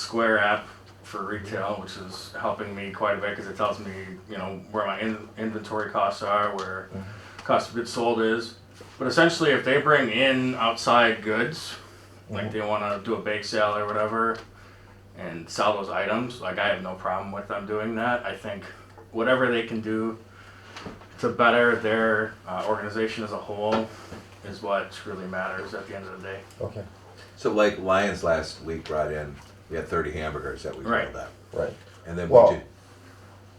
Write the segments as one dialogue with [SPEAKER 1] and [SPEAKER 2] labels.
[SPEAKER 1] Square app for retail, which is helping me quite a bit because it tells me, you know, where my in- inventory costs are, where cost of goods sold is. But essentially, if they bring in outside goods, like they want to do a bake sale or whatever, and sell those items, like I have no problem with them doing that. I think whatever they can do to better their uh, organization as a whole is what really matters at the end of the day.
[SPEAKER 2] Okay,
[SPEAKER 3] So like Lions last week brought in, we had thirty hamburgers that we
[SPEAKER 1] Right.
[SPEAKER 3] filled up,
[SPEAKER 2] right.
[SPEAKER 3] and then
[SPEAKER 2] Well,
[SPEAKER 3] we did.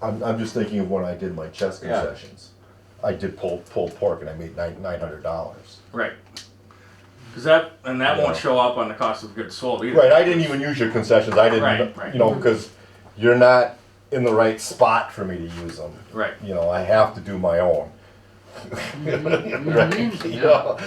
[SPEAKER 2] I'm, I'm just thinking of when I did my chess
[SPEAKER 3] Yeah.
[SPEAKER 2] concessions. I did pulled, pulled pork and I made nine, nine hundred dollars.
[SPEAKER 1] Right. Because that and that
[SPEAKER 2] Yeah.
[SPEAKER 1] won't show up on the cost of goods sold either.
[SPEAKER 2] Right, I didn't e- even use your concessions, I didn't,
[SPEAKER 1] Right, right.
[SPEAKER 2] you know, because you're not in the right spot for me to use them.
[SPEAKER 1] Right.
[SPEAKER 2] You know, I have to do my own. Right, you know,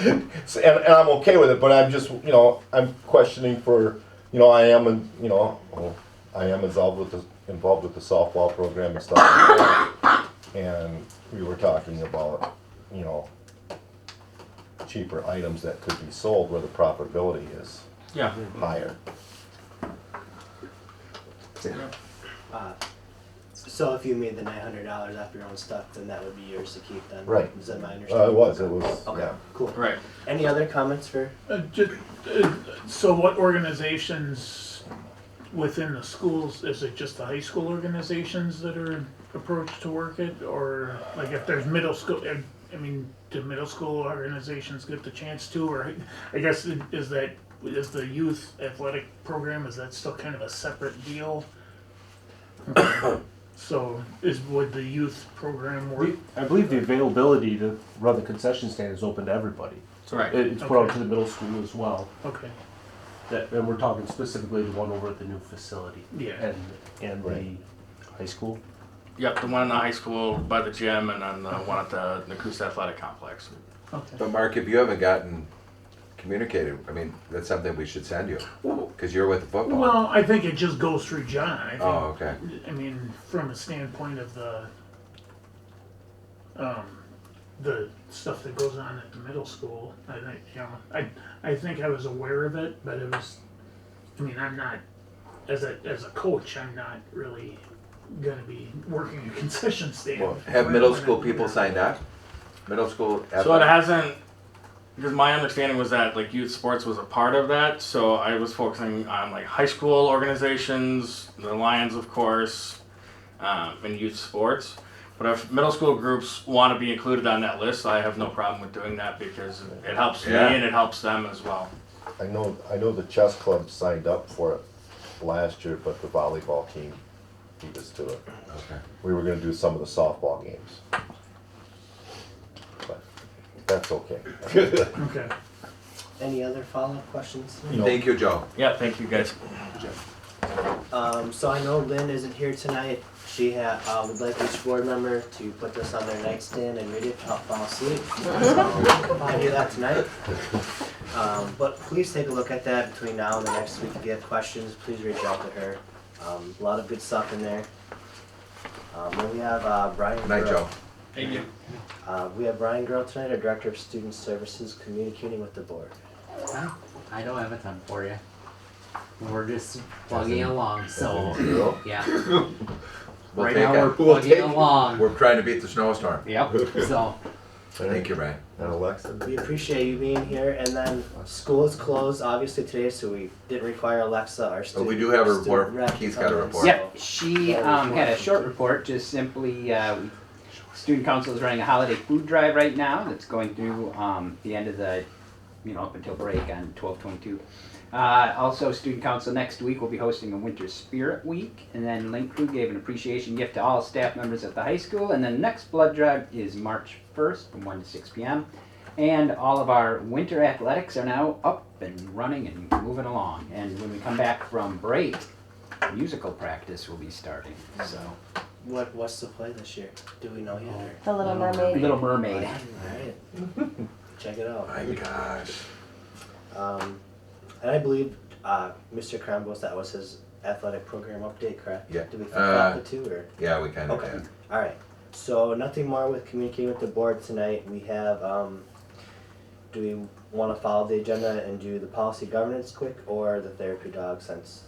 [SPEAKER 2] so, and, and I'm okay with it, but I'm just, you know, I'm questioning for, you know, I am, in- you know, well, I am involved with the, involved with the softball program and stuff. like that. And we were talking about, you know, cheaper items that could be sold where the profitability is
[SPEAKER 1] Yeah.
[SPEAKER 2] higher.
[SPEAKER 4] Uh, so if you made the nine hundred dollars off your own stuff, then that would be yours to keep then?
[SPEAKER 2] Right.
[SPEAKER 4] Is that my
[SPEAKER 2] Uh, it
[SPEAKER 4] understanding?
[SPEAKER 2] was, it was,
[SPEAKER 4] Okay,
[SPEAKER 2] yeah.
[SPEAKER 4] cool.
[SPEAKER 1] Right.
[SPEAKER 4] Any other comments for,
[SPEAKER 5] Uh, just, uh, so what organizations within the schools, is it just the high school organizations that are approached to work it? Or like if there's middle school, I- I mean, do middle school organizations get the chance to? Or I guess it- is that, is the youth athletic program, is that still kind of a separate deal? So is, would the youth program work?
[SPEAKER 6] We- I believe the availability to run the concession stand is open to everybody.
[SPEAKER 1] Right.
[SPEAKER 6] It- It's put out to the middle school as well.
[SPEAKER 5] Okay,
[SPEAKER 6] That, and we're talking specifically the one over at the new facility.
[SPEAKER 5] Yeah.
[SPEAKER 6] And, and
[SPEAKER 2] Right.
[SPEAKER 6] the high school.
[SPEAKER 1] Yep. The one in the high school by the gym, and then the one at the Nakusa Athletic Complex.
[SPEAKER 5] okay.
[SPEAKER 3] But Mark, if you haven't gotten communicated, I mean, that's something we should send you because you're with the football.
[SPEAKER 5] Well, I think it just goes through John. I think
[SPEAKER 3] oh, okay.
[SPEAKER 5] I mean, from a standpoint of the um, the stuff that goes on at the middle school, I think you know, I I think I was aware of it, but it was, I mean, I'm not as a as a coach, I'm not really gonna be working a concession stand.
[SPEAKER 3] Well, have middle school people signed up? Middle school.
[SPEAKER 1] So it
[SPEAKER 3] athletic-
[SPEAKER 1] hasn't. Because my understanding was that like youth sports was a part of that, so I was focusing on like high school organizations, the Lions, of course, um, and youth sports. But if middle school groups want to be included on that list, I have no problem with doing that because it helps
[SPEAKER 3] Yeah.
[SPEAKER 1] me and it helps them as well.
[SPEAKER 2] I know, I know the chess club signed up for it last year, but the volleyball team beat us to it.
[SPEAKER 3] Okay.
[SPEAKER 2] We were gonna do some of the softball games. But that's okay.
[SPEAKER 5] Okay.
[SPEAKER 4] any other follow-up questions?
[SPEAKER 2] You know,
[SPEAKER 3] Thank you, Joe.
[SPEAKER 1] Yeah, thank you guys.
[SPEAKER 4] Um, so I know Lynn isn't here tonight. She ha- uh, would like each board member to put this on their nightstand and read it to help fall asleep. So I'll do that tonight. Um, but please take a look at that between now and the next week. If you have questions, please reach out to her. Um, a lot of good stuff in there. Um, then we have uh, Brian.
[SPEAKER 3] Good night,
[SPEAKER 4] Burke.
[SPEAKER 3] Joe.
[SPEAKER 1] Thank you.
[SPEAKER 4] Uh, we have Brian Girl tonight, our Director of Student Services, communicating with the board.
[SPEAKER 7] Well, I don't have a ton for you. We're just plugging along, so
[SPEAKER 2] Zero.
[SPEAKER 7] yeah.
[SPEAKER 3] We'll
[SPEAKER 7] right
[SPEAKER 3] take
[SPEAKER 7] now we're
[SPEAKER 3] it.
[SPEAKER 7] plugging along.
[SPEAKER 3] We're trying to beat the snowstorm.
[SPEAKER 7] yep. So
[SPEAKER 3] Thank you, Ryan.
[SPEAKER 2] And Alexa.
[SPEAKER 4] We appreciate you being here, and then school is closed obviously today, so we didn't require Alexa, our
[SPEAKER 3] But
[SPEAKER 4] student.
[SPEAKER 3] we do have a
[SPEAKER 4] student
[SPEAKER 3] report.
[SPEAKER 4] rep,
[SPEAKER 3] Keith's got a
[SPEAKER 4] um,
[SPEAKER 3] report.
[SPEAKER 4] so-
[SPEAKER 8] Yep, she um, had a short report, just simply, uh, we- student council is running a holiday food drive right now that's going through um, the end of the, you know, up until break on twelve twenty-two. Uh, also, student council next week will be hosting a winter spirit week, and then Link Crew gave an appreciation gift to all staff members at the high school, and then next blood drive is March first from one to six P M. And all of our winter athletics are now up and running and moving along, and when we come back from break, musical practice will be starting. So,
[SPEAKER 4] What, what's the play this year? Do we know yet? or-
[SPEAKER 8] The
[SPEAKER 7] Oh,
[SPEAKER 8] Little Mermaid.
[SPEAKER 7] Little Mermaid.
[SPEAKER 4] Alright, check it out.
[SPEAKER 3] My gosh.
[SPEAKER 4] Um, and I believe, uh, Mr. Crambos, that was his athletic program update, correct?
[SPEAKER 3] Yeah,
[SPEAKER 4] Did we flip
[SPEAKER 3] uh,
[SPEAKER 4] flop the two, or?
[SPEAKER 3] Yeah, we kind of
[SPEAKER 4] Okay.
[SPEAKER 3] did.
[SPEAKER 4] All right. So nothing more with communicating with the board tonight. We have. Um, do we want to follow the agenda and do the policy governance quick or the therapy dog since